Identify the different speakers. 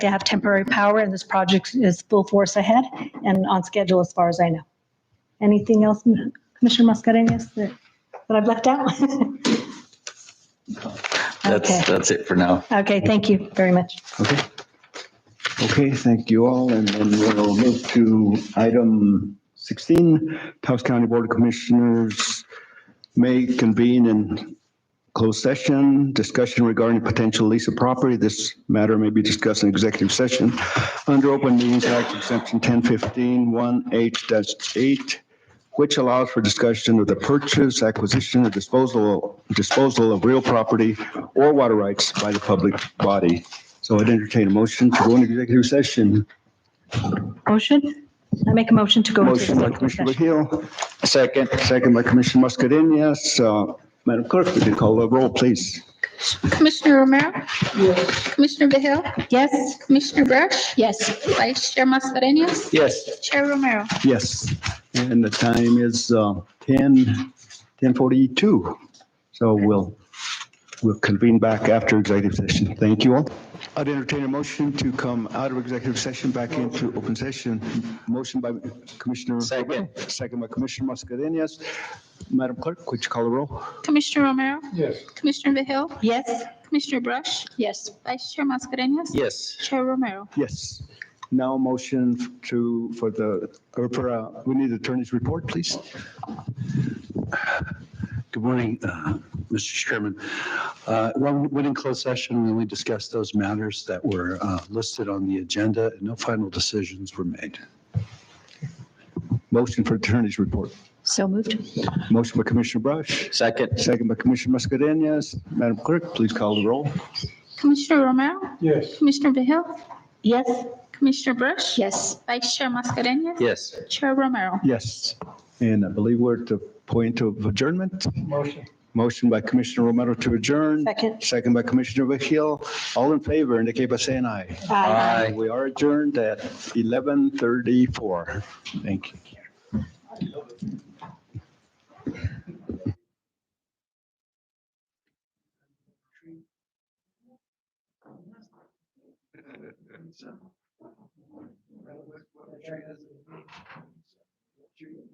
Speaker 1: They have temporary power and this project is full force ahead and on schedule as far as I know. Anything else, Commissioner Mascarenhas, that, that I've left out? Okay,
Speaker 2: That's, that's it for now.
Speaker 1: okay, thank you very much.
Speaker 3: Okay. Okay, thank you all. And then we'll move to item 16, Taos County Board of Commissioners may convene in closed session, discussion regarding potential lease of property. This matter may be discussed in executive session under Open Meetings Act Exemption 1015 1H-8, which allows for discussion of the purchase, acquisition, or disposal, disposal of real property or water rights by the public body. So I'd entertain a motion to go into executive session.
Speaker 1: Motion? I make a motion to go into
Speaker 3: Motion by
Speaker 1: executive
Speaker 3: Commissioner
Speaker 1: session.
Speaker 3: Hill. Second. Second by Commissioner Mascherinas. Uh, Madam Clerk, would you call the roll, please?
Speaker 4: Commissioner Romero? Commissioner Vehil?
Speaker 1: Yes?
Speaker 4: Commissioner Brush?
Speaker 1: Yes.
Speaker 4: Vice Chair Mascherinius?
Speaker 3: Yes.
Speaker 4: Chair Romero?
Speaker 3: Yes. And the time is uh, 10, 10:42. So we'll, we'll convene back after executive session. Thank you all. I'd entertain a motion to come out of executive session back into open session. Motion by Commissioner. Second. Second by Commissioner Mascherinas. Madam Clerk, would you call the roll?
Speaker 4: Commissioner Romero? Yes. Commissioner Vehil?
Speaker 1: Yes?
Speaker 4: Commissioner Brush? Yes. Vice Chair Mascherinius?
Speaker 2: Yes.
Speaker 4: Chair Romero?
Speaker 3: Yes. Now motion to, for the, or for, uh, we need attorney's report, please.
Speaker 5: Good morning, uh, Mr. Chairman. Uh, When we went in closed session, we only discussed those matters that were uh, listed on the agenda, and no final decisions were made.
Speaker 3: Motion for attorney's report.
Speaker 1: So moved.
Speaker 3: Motion by Commissioner Brush,
Speaker 2: Second.
Speaker 3: second by Commissioner Mascherinius. Madam Clerk, please call the roll.
Speaker 4: Commissioner Romero? Yes. Commissioner Vehil?
Speaker 1: Yes?
Speaker 4: Commissioner Brush?
Speaker 1: Yes.
Speaker 4: Vice Chair Mascherinius?
Speaker 2: Yes.
Speaker 4: Chair Romero?
Speaker 3: Yes. And I believe we're at the point of adjournment. Motion. Motion by Commissioner Romero to adjourn.
Speaker 1: Second.
Speaker 3: Second by Commissioner Vehil. All in favor indicate by saying aye.
Speaker 1: Aye.
Speaker 3: We are adjourned at 11:34. Thank you.